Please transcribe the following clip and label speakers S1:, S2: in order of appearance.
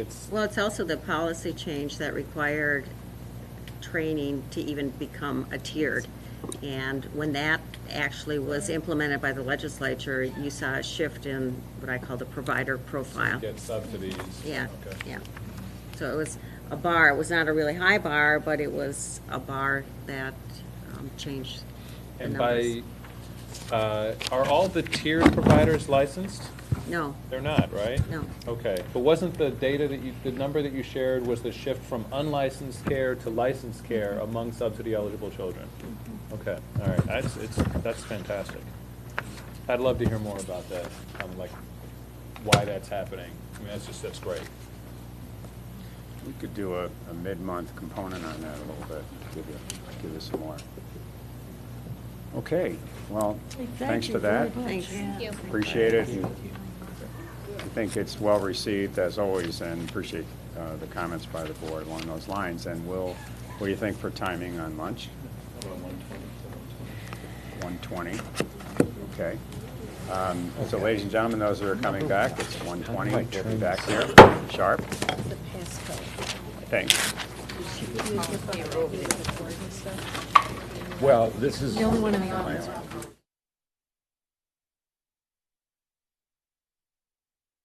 S1: It's,
S2: Well, it's also the policy change that required training to even become a tiered. And when that actually was implemented by the legislature, you saw a shift in what I call the provider profile.
S1: get subsidies.
S2: Yeah,
S1: Okay.
S2: yeah. So it was a bar, it was not a really high bar, but it was a bar that um, changed the
S1: And
S2: numbers.
S1: by, uh, are all the tiered providers licensed?
S2: No,
S1: They're not, right?
S2: No.
S1: Okay, but wasn't the data that you, the number that you shared was the shift from unlicensed care to licensed care
S2: Mm-hmm.
S1: among subsidy eligible children? Okay, all right, that's, it's, that's fantastic. I'd love to hear more about that, um, like, why that's happening. I mean, that's just, that's great.
S3: We could do a, a mid-month component on that a little bit, give you, give us some more. Okay, well, thanks for that.
S2: thanks.
S3: Appreciate it. and I think it's well-received as always, and appreciate uh, the comments by the board along those lines. And we'll, what do you think for timing on lunch? 1:20, okay. Um, So ladies and gentlemen, those that are coming back, it's 1:20, we'll be back here, sharp. Thanks.
S4: Well, this is,
S5: The only one in the audience.